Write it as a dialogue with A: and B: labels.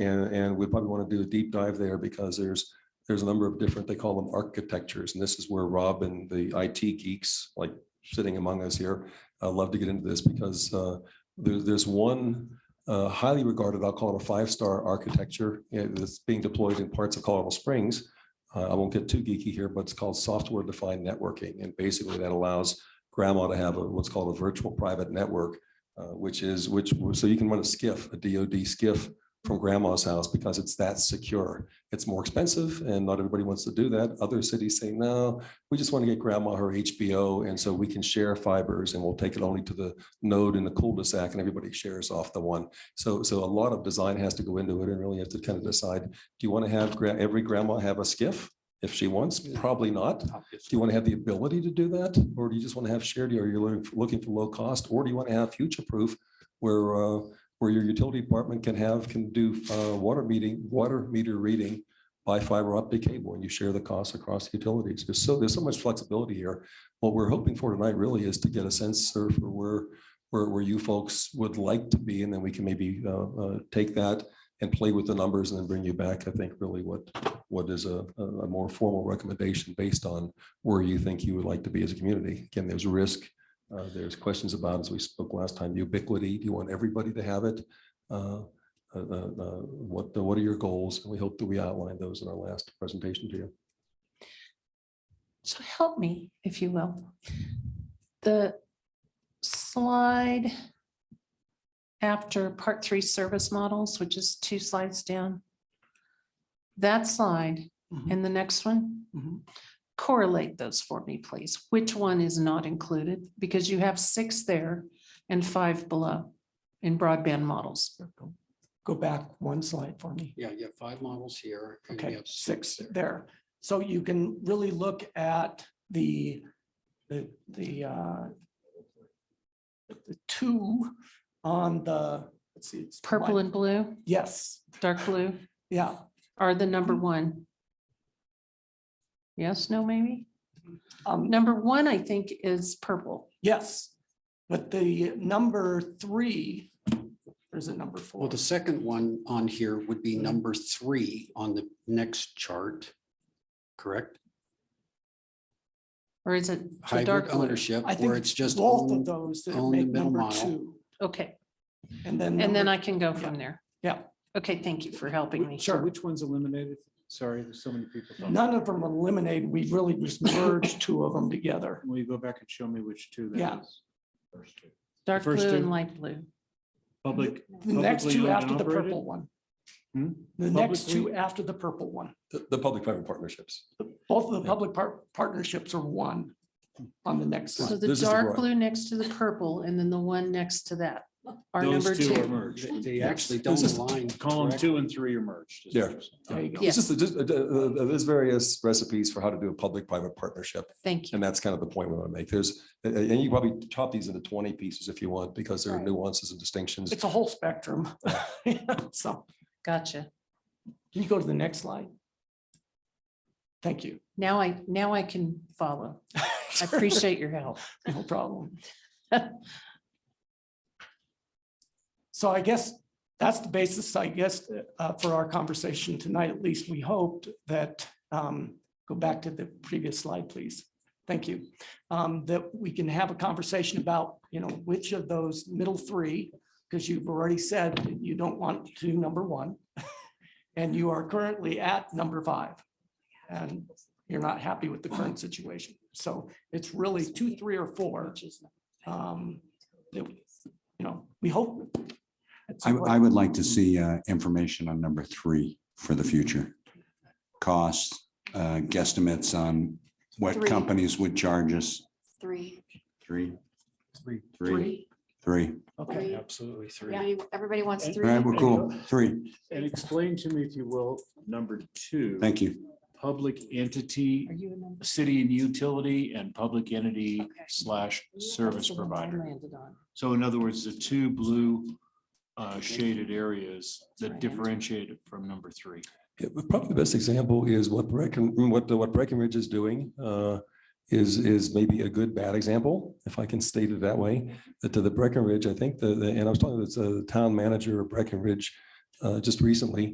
A: And, and we probably want to do a deep dive there because there's, there's a number of different, they call them architectures. And this is where Rob and the IT geeks, like sitting among us here, uh, love to get into this because uh, there, there's one uh, highly regarded, I'll call it a five-star architecture uh, that's being deployed in parts of Colorado Springs. Uh, I won't get too geeky here, but it's called software-defined networking. And basically that allows grandma to have a- what's called a virtual private network, uh, which is, which, so you can run a skiff, a DoD skiff from grandma's house because it's that secure. It's more expensive and not everybody wants to do that. Other cities say, no, we just want to get grandma her HBO and so we can share fibers and we'll take it only to the node in the cul-de-sac and everybody shares off the one. So, so a lot of design has to go into it and really have to kind of decide, do you want to have gra- every grandma have a skiff? If she wants, probably not. Do you want to have the ability to do that? Or do you just want to have shared, or you're looking, for- looking for low cost? Or do you want to have future proof where, uh, where your utility department can have, can do, uh, water meeting, water meter reading by fiber optic cable and you share the costs across the utilities. There's so, there's so much flexibility here. What we're hoping for tonight really is to get a sense sir, for where, where, where you folks would like to be. And then we can maybe, uh, uh, take that and play with the numbers and then bring you back, I think, really what, what is a, a a more formal recommendation based on where you think you would like to be as a community. Again, there's risk. uh, There's questions about, as we spoke last time, ubiquity. Do you want everybody to have it? Uh, uh, uh, uh, What, what are your goals? And we hope that we outlined those in our last presentation to you.
B: So help me, if you will. The slide after part three service models, which is two slides down. That slide
C: Mhm.
B: and the next one,
C: Mhm.
B: correlate those for me, please. Which one is not included? Because you have six there and five below in broadband models.
C: Go- Go back one slide for me.
D: Yeah, you have five models here. and you
C: Okay,
D: have
C: six
D: there.
C: there. So you can really look at the, the, the, uh, the two on the, let's see. it's
B: Purple
C: one-
B: and blue,
C: Yes,
B: dark blue
C: yeah,
B: are the number one. Yes, no, maybe?
C: um,
B: Number one, I think, is purple.
C: yes. But the number three, there's a number
D: Well,
C: four.
D: the second one on here would be number three on the next chart, correct?
B: Or is it the
D: Hybrid
B: dark blue?
D: ownership,
C: I
D: where
C: think
D: it's just.
C: Both
D: own-
C: of those that
D: own the
C: make
D: middle
C: number
D: mile.
C: two.
B: Okay,
C: And then.
B: and then
C: number-
B: I can go from there.
C: Yeah.
B: Okay, thank you for helping me.
E: So which one's eliminated? Sorry, there's so many people.
C: None of them eliminated. We really just merged two of them together.
E: Will you go back and show me which two that
C: Yeah.
E: is? First two.
B: Dark
E: first
B: blue
E: two.
B: and light blue.
E: Public,
C: The next
E: Publicly
C: two
E: owned
C: after
E: and
C: the
E: operated?
C: purple one.
E: Hmm?
C: The next two
E: Publicly-
C: after the purple one.
A: The, the public-private partnerships.
C: Both of the public par- partnerships are one on the next
B: So
C: slide.
B: the
A: This is the
B: dark
A: broad.
B: blue next to the purple and then the one next to that are number
E: those two are
B: two.
E: merged.
D: They- They actually
A: This
D: don't
A: is
D: align.
E: Column
D: correctly.
E: two and three are merged. is
A: Yeah.
E: what you're saying.
C: There you go.
A: It's just, just, uh, uh, there's various recipes for how to do a public-private partnership.
B: Thank you.
A: And that's kind of the point we want to make. There's, and- and you probably chop these into twenty pieces if you want, because there are
B: Right.
A: nuances and distinctions.
C: It's a whole spectrum. So
B: Gotcha.
C: can you go to the next slide? Thank you.
B: Now I, now I can follow. I appreciate your help.
C: No problem. So I guess that's the basis, I guess, uh, for our conversation tonight. At least we hoped that, um, go back to the previous slide, please. Thank you. Um, That we can have a conversation about, you know, which of those middle three, because you've already said that you don't want to do number one. And you are currently at number five. And you're not happy with the current situation. So it's really two, three, or four. um, that we- You know, we hope. at
F: I,
C: some
F: I
C: point-
F: would like to see uh, information on number three for the future. Costs, uh, guesstimates on what
C: Three.
F: companies would charge us.
G: Three,
F: Three,
E: Three.
F: three,
C: Three,
F: three.
C: okay.
E: Absolutely
G: yeah, you- everybody wants
E: And-
F: All right,
G: three.
F: well, cool. Three.
E: And explain to me, if you will, number two.
F: Thank you.
E: Public entity,
B: Are you a number?
E: city and utility and public entity
G: Okay.
E: slash
B: That's
E: service
B: the one I
E: provider.
B: landed on.
E: So in other words, the two blue uh, shaded areas that
B: Right.
E: differentiate it from number three.
A: Yeah, but Probably the best example is what Brecken, what, the- what Breckenridge is doing, uh, is, is maybe a good, bad example, if I can state it that way. That to the Breckenridge, I think the, the- and I was talking to the town manager of Breckenridge, uh, just recently.